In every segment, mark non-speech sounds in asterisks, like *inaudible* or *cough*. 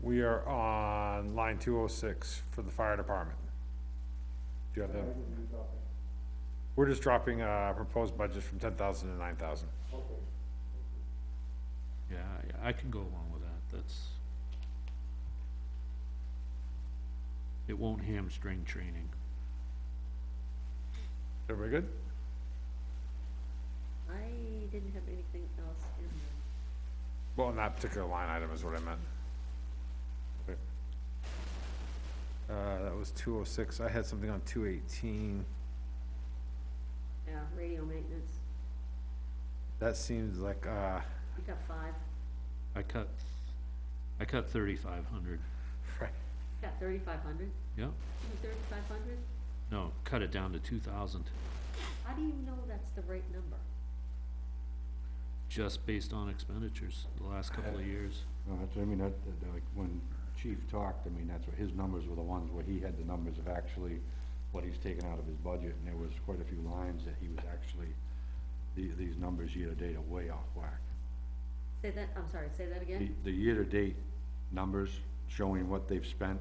We are on line two oh six for the fire department. Do you have that? We're just dropping, uh, proposed budget from ten thousand to nine thousand. Yeah, I, I can go along with that, that's. It won't hamstring training. Everybody good? I didn't have anything else in there. Well, on that particular line item is what I meant. Okay. Uh, that was two oh six. I had something on two eighteen. Yeah, radio maintenance, That seems like, uh, *laughs* you got five, I cut, I cut thirty-five hundred, right, you got thirty-five hundred, yeah, even thirty-five hundred? no, cut it down to two thousand, How do you know that's the right number? just based on expenditures the last couple of years. No, that's, I mean, that, that, like, when Chief talked, I mean, that's what, his numbers were the ones where he had the numbers of actually what he's taken out of his budget, and there was quite a few lines that he was actually, the, these numbers year-to-date are way off whack. Say that, I'm sorry, say that The, again? the year-to-date numbers showing what they've spent,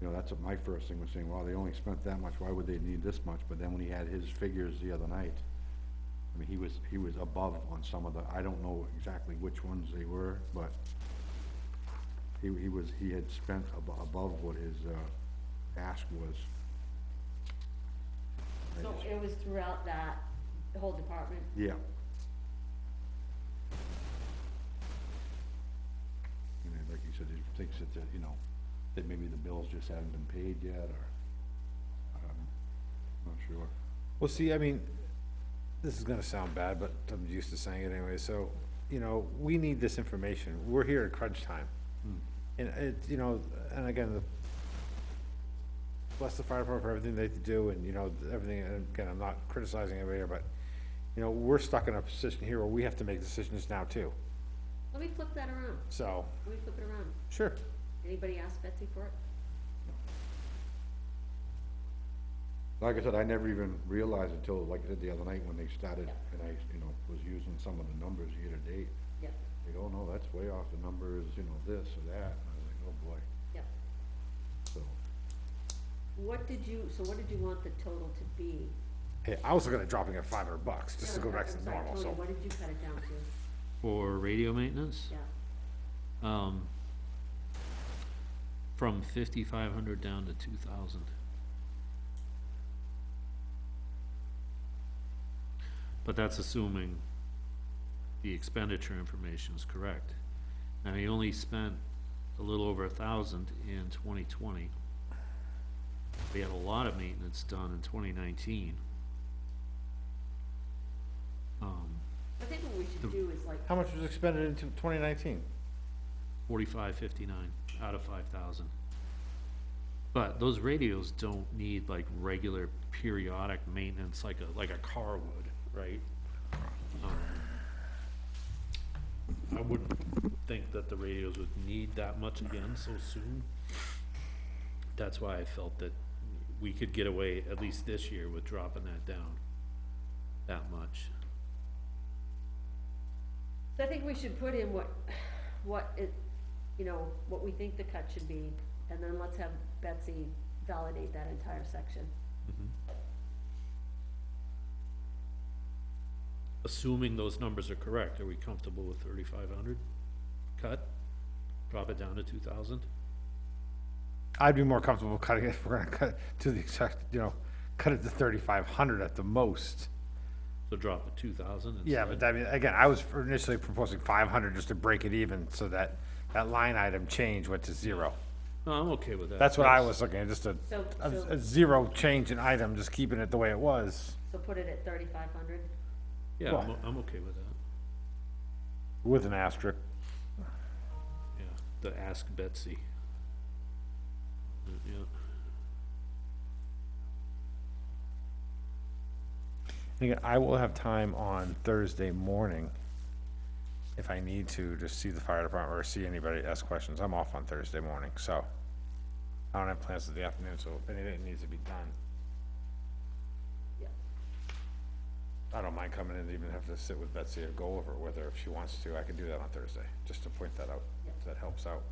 you know, that's what my first thing was saying, well, they only spent that much, why would they need this much? But then when he had his figures the other night, I mean, he was, he was above on some of the, I don't know exactly which ones they were, but he, he was, he had spent abo- above what his, uh, ask was. I So just- it was throughout that, the whole department? Yeah. And then, like you said, he thinks that, that, you know, that maybe the bills just haven't been paid yet, or, um, not sure. Well, see, I mean, this is gonna sound bad, but I'm used to saying it anyway, so, you know, we need this information, we're here at crunch time. And it, you know, and again, the, bless the fire department for everything they do, and, you know, everything, and again, I'm not criticizing anybody here, but, you know, we're stuck in a position here where we have to make decisions now too, Let me flip that around, so, let me flip it around. sure. Anybody ask Betsy for it? Like I said, I never even realized until, like I said, the other night when they started, and I, you know, was using some of the numbers year to date. Yep, They go, "Oh, no, that's way off, the numbers, you know, this or that, and I was like, oh boy, yep. so. What did you, so what did you want the total to be? Hey, I was looking at dropping it five hundred bucks, just to No, go back I'm to sorry, normal, Tony, so, What did you cut it down to? For radio maintenance, Yeah, um, from fifty-five hundred down to two thousand. But that's assuming the expenditure information is correct. And he only spent a little over a thousand in twenty twenty. We had a lot of maintenance done in twenty nineteen. Um, I think what we should do is like, how much was expended into twenty nineteen? forty-five fifty-nine out of five thousand. But those radios don't need like regular periodic maintenance like a, like a car would, right? Um, I wouldn't think that the radios would need that much again so soon. That's why I felt that we could get away, at least this year, with dropping that down that much. I think we should put in what, what it, you know, what we think the cut should be, and then let's have Betsy validate that entire section. assuming those numbers are correct, are we comfortable with thirty-five hundred cut? Drop it down to two thousand? I'd be more comfortable cutting it, if we're gonna cut it to the exact, you know, cut it to thirty-five hundred at the most. So drop it two thousand instead? Yeah, but I mean, again, I was initially proposing five hundred just to break it even, so that that line item change went to zero. No, "Oh, I'm okay with that. That's what I was looking at, just a, So- a, so- a zero change in item, just keeping it the way it was. So put it at thirty-five hundred, Yeah, I'm, o- I'm okay with that, With an asterisk. yeah, the ask Betsy. Uh, Yeah, And Again, I will have time on Thursday morning, if I need to, to see the fire department or see anybody ask questions. I'm off on Thursday morning, so. I don't have plans for the afternoon, so if anything needs to be done, yeah. I don't mind coming in and even have to sit with Betsy or go over it with her if she wants to. I can do that on Thursday, just to point that out, if that helps out.